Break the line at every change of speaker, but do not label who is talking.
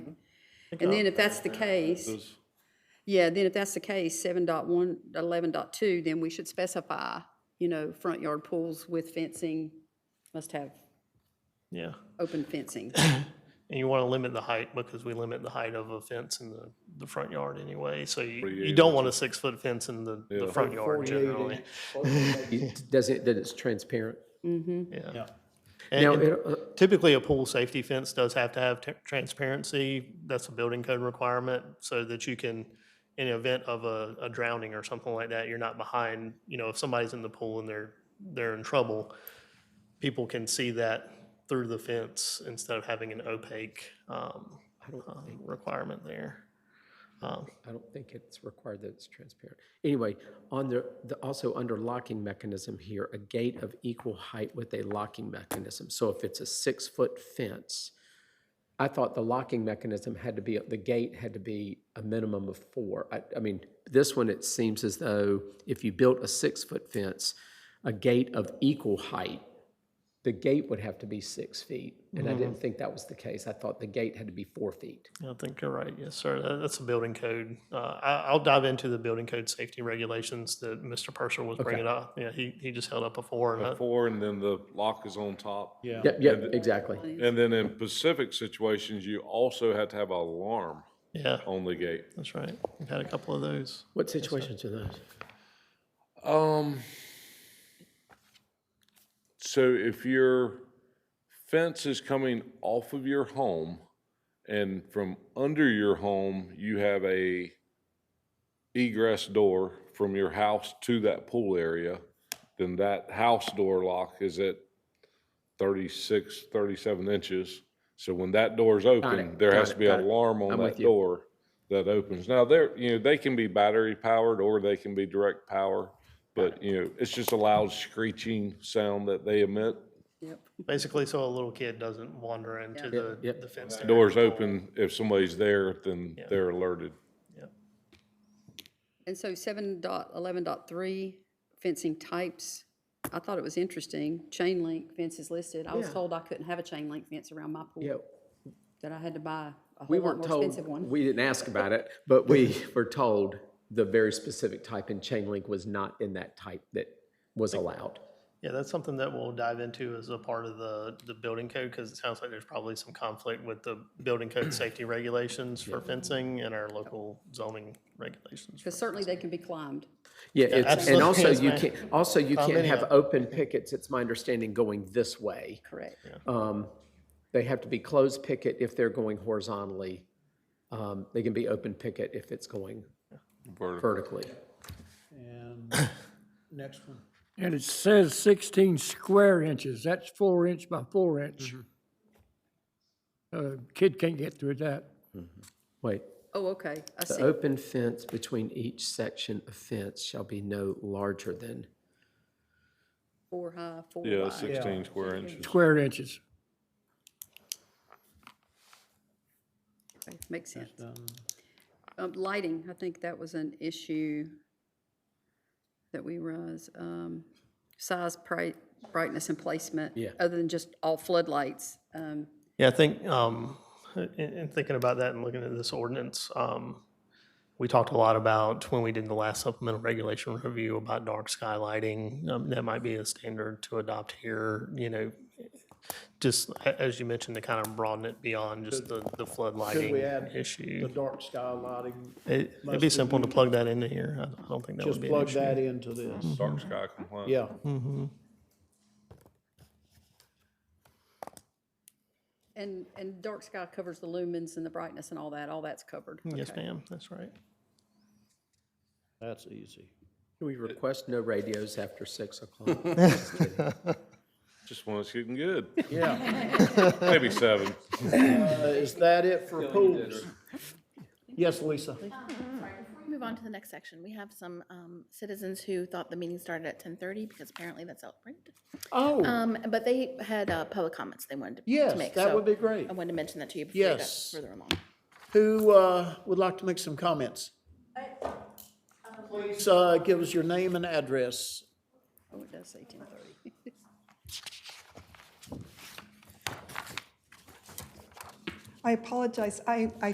And then if that's the case,
Those-
yeah, then if that's the case, seven dot one, eleven dot two, then we should specify, you know, front yard pools with fencing, must have
Yeah.
open fencing.
And you want to limit the height because we limit the height of a fence in the, the front yard anyway. So you, you don't want a six-foot fence in the, the front yard generally.
Does it, that it's transparent?
Yeah.
Now,
And- And
it- uh,
typically, a pool safety fence does have to have t- transparency. That's a building code requirement so that you can, in the event of a, a drowning or something like that, you're not behind, you know, if somebody's in the pool and they're, they're in trouble, people can see that through the fence instead of having an opaque um, um, requirement there.
I don't think it's required that it's transparent. Anyway, on the, the- also under locking mechanism here, a gate of equal height with a locking mechanism. So if it's a six-foot fence, I thought the locking mechanism had to be, the gate had to be a minimum of four. I, I mean, this one, it seems as though if you built a six-foot fence, a gate of equal height, the gate would have to be six feet. And
Mm-hmm.
I didn't think that was the case. I thought the gate had to be four feet.
I think you're right. Yes, sir. That- That's a building code. Uh, I, I'll dive into the building code safety regulations that Mr. Purser was bringing up. Yeah, he, he just held up before. and I-
Four, and then the lock is on top. Yeah.
Yep, yep, exactly.
And then in Pacific situations, you also have to have an alarm
Yeah,
on the gate.
that's right. We've had a couple of those.
What situations are those?
Um, so if your fence is coming off of your home and from under your home, you have a egress door from your house to that pool area, then that house door lock is at 36, 37 inches. So when that door's open, there has
got
to
it,
be an
got it.
alarm on
I'm
that
with you.
door that opens. Now, they're, you know, they can be battery powered or they can be direct power. But, you know, it's just a loud screeching sound that they emit.
Yep.
Basically, so a little kid doesn't wander into the,
Yep.
the fence. area.
Doors open, if somebody's there, then they're alerted.
And so seven dot eleven dot three, fencing types, I thought it was interesting, chain link fence is listed. I was told I couldn't have a chain link fence around my
Yeah,
pool, that I had to buy a
we
whole lot
weren't
more
told,
expensive one.
we didn't ask about it, but we were told the very specific type in chain link was not in that type that was allowed.
Yeah, that's something that we'll dive into as a part of the, the building code because it sounds like there's probably some conflict with the building code safety regulations for fencing and our local zoning regulations.
Because certainly they can be climbed.
Yeah, it's, and
absolutely,
also
yes,
you
ma'am.
can't, also you can't
many
have
of-
open pickets, it's my understanding, going this way.
Correct.
Um, They have to be closed picket if they're going horizontally. Um, They can be open picket if it's going vertically.
And next one.
And it says 16 square inches, that's four inch by four inch. Uh, Kid can't get through that.
Wait,
Oh, okay, I
the
see.
open fence between each section of fence shall be no larger than
Four high, four
Yeah,
wide.
16 square inches.
Square inches,
Okay, Makes sense. Um, lighting, I think that was an issue that we raised. Um, size, bright, brightness and placement.
Yeah.
Other than just all floodlights. Um,
Yeah, I think, um, in, in thinking about that and looking at this ordinance, um, we talked a lot about when we did the last supplemental regulation review about dark sky lighting. Um, that might be a standard to adopt here, you know, just a- as you mentioned, to kind of broaden it beyond just the, the flood lighting
add The
issue.
dark sky lighting,
It, it'd be simple to plug that into here. I I don't think that would
just
be an
plug
issue. Hmm.
that into this,
Dark sky compliant.
yeah.
and, and dark sky covers the lumens and the brightness and all that, all that's covered.
Mm, Yes, ma'am, that's right.
That's easy.
Can we request no radios after six o'clock?
Just when it's getting good.
Yeah.
Maybe seven.
Uh, Is that it for pools? Yes, Lisa.
Before we move on to the next section, we have some um, citizens who thought the meeting started at 10:30 because apparently that's outbreak.
Oh,
Um, But they had uh, public comments they wanted to-
Yes,
to make.
that
so
would be great.
I wanted to mention that to you before you got
Yes.
further along.
who uh, would like to make some comments? Please uh, give us your name and address.
Oh, it does say ten thirty.
I apologize. I, I